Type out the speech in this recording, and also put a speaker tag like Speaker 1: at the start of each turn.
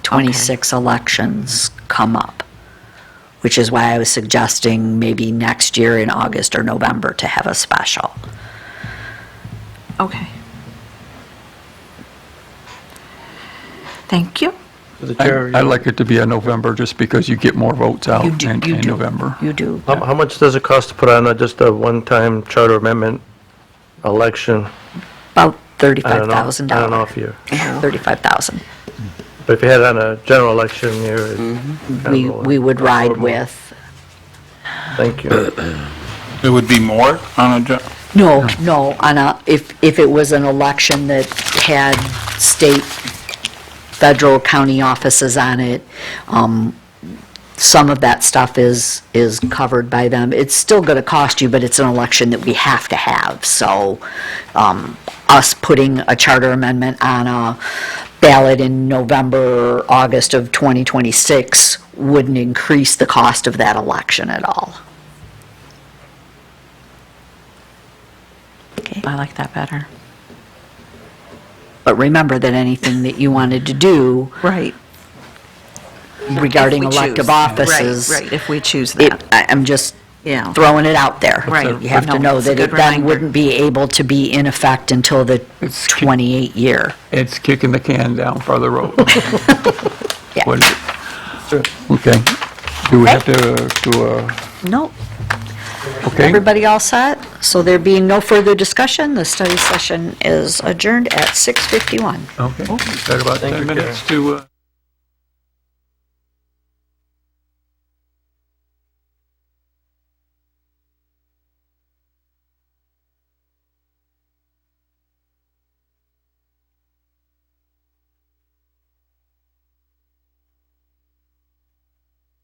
Speaker 1: 26 elections come up, which is why I was suggesting maybe next year in August or November to have a special.
Speaker 2: Okay. Thank you.
Speaker 3: For the
Speaker 4: I-
Speaker 3: charity.
Speaker 4: I like it to be in November, just because you get more votes out
Speaker 1: You do-
Speaker 4: in
Speaker 1: you
Speaker 4: in
Speaker 1: do-
Speaker 4: November.
Speaker 1: You do.
Speaker 3: How how much does it cost to put on a- just a one-time charter amendment election?
Speaker 1: About
Speaker 3: I don't know.
Speaker 1: $35,000.
Speaker 3: I don't know if you,
Speaker 1: 35000
Speaker 3: but if you had it on a general election year, it- kind of
Speaker 1: Mm-hmm. We,
Speaker 3: lower.
Speaker 1: we would ride
Speaker 3: Affordable.
Speaker 1: with,
Speaker 3: Thank you.
Speaker 5: It would be more on a, ju-
Speaker 1: no, no, on a, if, if it was an election that had state, federal, county offices on it, um, some of that stuff is, is covered by them. It's still going to cost you, but it's an election that we have to have. So um, us putting a charter amendment on a ballot in November, or August of 2026 wouldn't increase the cost of that election at all.
Speaker 2: I like that better.
Speaker 1: But remember that anything that you wanted to do
Speaker 2: Right.
Speaker 1: regarding
Speaker 6: If we choose.
Speaker 1: elective offices.
Speaker 6: Right, right, if we choose
Speaker 1: it-
Speaker 6: that.
Speaker 1: I- I'm just
Speaker 6: Yeah.
Speaker 1: throwing it out there.
Speaker 6: Right.
Speaker 1: You have to
Speaker 6: No,
Speaker 1: know
Speaker 6: it's a
Speaker 1: that it
Speaker 6: good
Speaker 1: then
Speaker 6: reminder.
Speaker 1: wouldn't be able to be in effect until the 28 year.
Speaker 4: It's kicking the can down farther road.
Speaker 1: Yeah.
Speaker 4: What is it? Okay. Do we have to do a,
Speaker 1: Nope.
Speaker 4: okay?
Speaker 1: Everybody all set? So there being no further discussion, the study session is adjourned at 6:51.
Speaker 4: Okay. We've got about 10
Speaker 3: you,
Speaker 4: minutes to. uh,